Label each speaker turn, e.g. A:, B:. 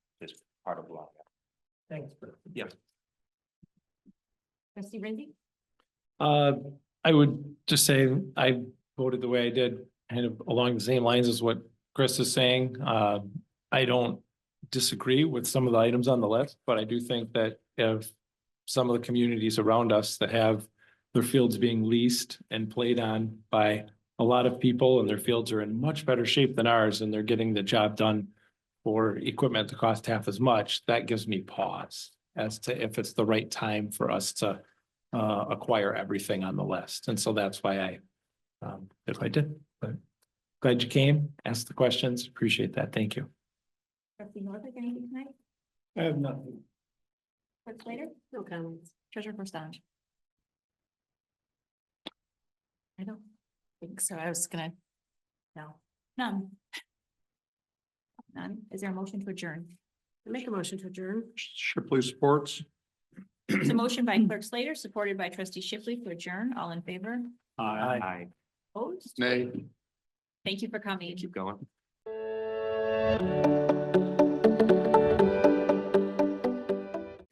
A: part of Long Island.
B: Thanks, Brett.
A: Yeah.
C: Trustee Rizzi,
D: Uh, I would just say I voted the way I did, kind of along the same lines as what Chris is saying. Uh, I don't disagree with some of the items on the list, but I do think that if some of the communities around us that have their fields being leased and played on by a lot of people and their fields are in much better shape than ours and they're getting the job done for equipment that costs half as much, that gives me pause as to if it's the right time for us to uh, acquire everything on the list. And so that's why I, um, that's what I did. But glad you came, asked the questions, appreciate that. Thank you.
C: trustee Norfolk, anything tonight?
B: I have nothing.
C: Clerk Slater? No comments. Treasurer Prestange? I don't think so. I was gonna, no, none. None. Is there a motion to adjourn? Make a motion to adjourn.
A: Shipley Sports.
C: It's a motion by Clerk Slater, supported by trustee Shipley to adjourn. All in favor?
A: Aye.
C: Opposed?
A: Nay.
C: Thank you for coming.
A: Keep going.